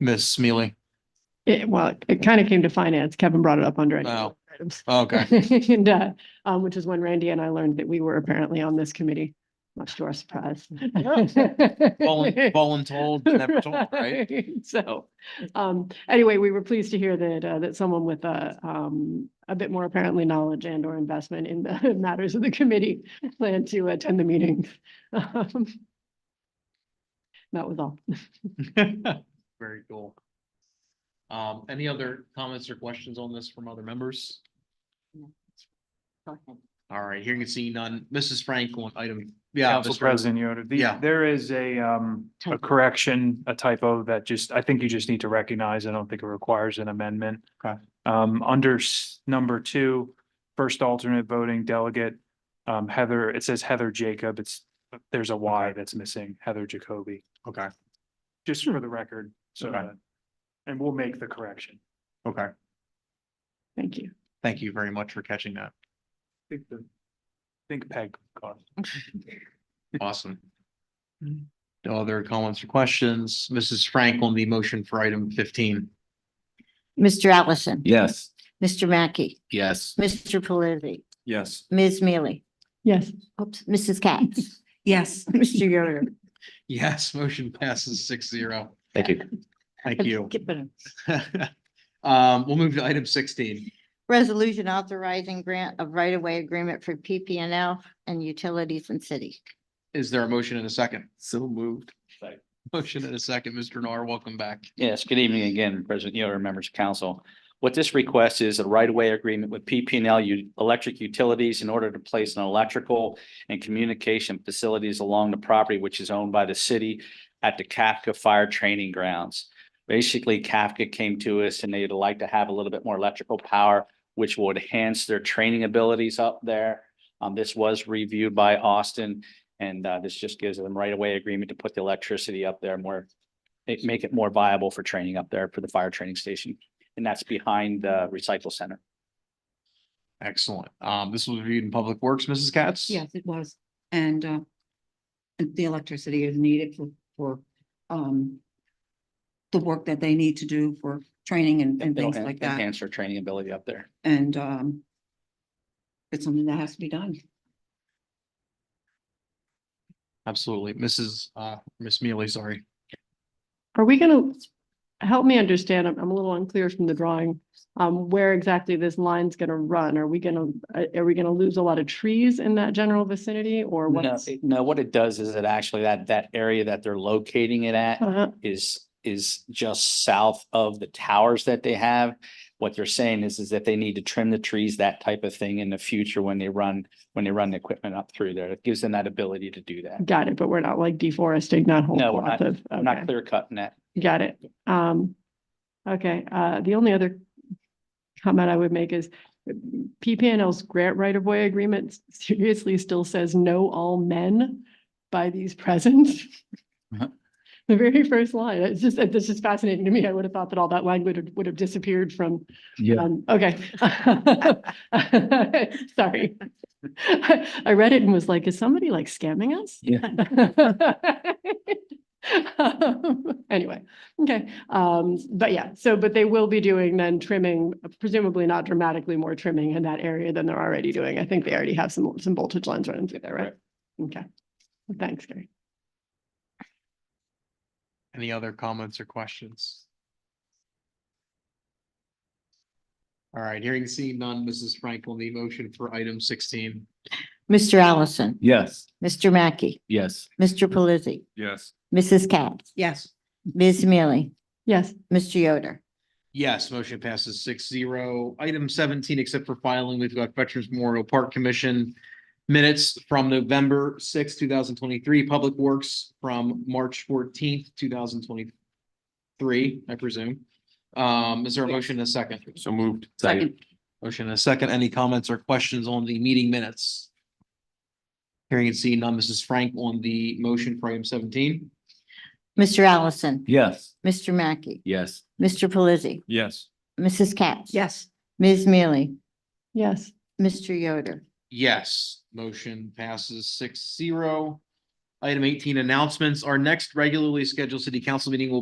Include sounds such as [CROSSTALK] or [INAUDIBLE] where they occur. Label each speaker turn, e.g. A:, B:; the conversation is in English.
A: Ms. Smealy?
B: It, well, it kind of came to finance. Kevin brought it up under. any
A: Oh.
B: items.
A: Okay, [LAUGHS]
B: [LAUGHS] And, uh, um, which is when Randy and I learned that we were apparently on this committee, much to our surprise. [LAUGHS]
A: Volun- voluntold, never told, [LAUGHS] right?
B: So, um, anyway, we were pleased to hear that, uh, that someone with a, um, a bit more apparently knowledge and or investment in the [LAUGHS] matters of the committee planned to attend the meeting. [LAUGHS] Um, That was all.
A: Very cool. Um, any other comments or questions on this from other members? All right, hearing and seeing none. Mrs. Franklin, item. yeah,
C: Council
A: Mr.
C: President Yoder, the-
A: Yeah.
C: there is a, um, a correction, a typo that just, I think you just need to recognize. I don't think it requires an amendment.
A: Okay.
C: Um, under s- number two, first alternate voting delegate, um, Heather, it says Heather Jacob. It's, there's a Y that's missing, Heather Jacoby,
A: Okay,
C: just for the record. So,
A: Okay.
C: that- and we'll make the correction.
A: okay.
B: Thank you.
A: Thank you very much for catching that.
C: I think the- I think Peg got it.
A: [LAUGHS] Awesome. No other comments or questions? Mrs. Franklin, the motion for item fifteen.
D: Mr. Allison.
E: Yes.
D: Mr. Mackey.
E: Yes.
D: Mr. Pelisi.
E: Yes.
D: Ms. Mealy.
B: Yes.
D: Oops, Mrs. Katz. Yes. Mr. Yoder.
A: Yes, motion passes six zero.
E: Thank you.
A: Thank you.
D: Kippen.
A: [LAUGHS] Um, we'll move to item sixteen.
D: Resolution authorizing grant of right-of-way agreement for PPNL and utilities in city.
A: Is there a motion and a second? [LAUGHS]
E: So moved.
A: Motion and a second. Mr. Nar, welcome back.
F: Yes, good evening again, President Yoder, members of council. What this request is a right-of-way agreement with PP and L Electric Utilities in order to place an electrical and communication facilities along the property which is owned by the city at the Kafka Fire Training Grounds. Basically, Kafka came to us and they'd like to have a little bit more electrical power, which will enhance their training abilities up there. Um, this was reviewed by Austin and, uh, this just gives them right-of-way agreement to put the electricity up there more it make it more viable for training up there for the fire training station. And that's behind the recycle center.
A: Excellent. Um, this was reviewed in Public Works, Mrs. Katz?
G: Yes, it was. And uh, and the electricity is needed for, for um, the work that they need to do for training and, and
F: It'll
G: things like that.
F: Enhance their training ability up there.
G: And um, it's something that has to be done.
A: Absolutely. Mrs. Uh, Miss Mealy, sorry.
B: Are we gonna, help me understand, I'm, I'm a little unclear from the drawing, um, where exactly this line's gonna run? Are we gonna, are, are we gonna lose a lot of trees in that general vicinity or
F: No,
B: what's?
F: it- no, what it does is it actually, that, that area that they're locating it at
B: Uh-huh.
F: is, is just south of the towers that they have. What they're saying is, is that they need to trim the trees, that type of thing in the future when they run, when they run the equipment up through there. It gives them that ability to do that.
B: Got it, but we're not like deforesting that whole
F: No, we're
B: swath
F: not-
B: of,
F: I'm not
B: okay,
F: clear cutting that.
B: got it. Um, okay, uh, the only other comment I would make is PPNL's grant right-of-way agreement seriously still says no all men by these presents.
F: Uh-huh.
B: The very first line, it's just, it's just fascinating to me. I would have thought that all that language would- would have disappeared from,
E: Yeah.
B: um, okay. [LAUGHS] Sorry. I read it and was like, is somebody like scamming us? [LAUGHS] Yeah. Um, Anyway, okay, um, but yeah, so, but they will be doing then trimming, presumably not dramatically more trimming in that area than they're already doing. I think they already have some, some voltage lines running through there, right? Okay, thanks, Gary.
A: Any other comments or questions? All right, hearing and seeing none, Mrs. Franklin, the motion for item sixteen.
D: Mr. Allison.
E: Yes.
D: Mr. Mackey.
E: Yes.
D: Mr. Pelisi.
E: Yes.
D: Mrs. Katz.
G: Yes,
D: Ms. Mealy.
B: Yes,
D: Mr. Yoder.
A: Yes, motion passes six zero. Item seventeen, except for filing, we've got Veterans Memorial Park Commission minutes from November sixth, two thousand twenty-three, Public Works from March fourteenth, two thousand twenty-three, I presume. Um, is there a motion and a second?
E: So moved.
G: second,
A: Motion and a second. Any comments or questions on the meeting minutes? Hearing and seeing none. Mrs. Frank on the motion for item seventeen.
D: Mr. Allison.
E: Yes.
D: Mr. Mackey.
E: Yes.
D: Mr. Pelisi.
E: Yes.
D: Mrs. Katz.
G: yes,
D: Ms. Mealy.
B: yes,
D: Mr. Yoder.
A: Yes, motion passes six zero. Item eighteen, announcements. Our next regularly scheduled city council meeting will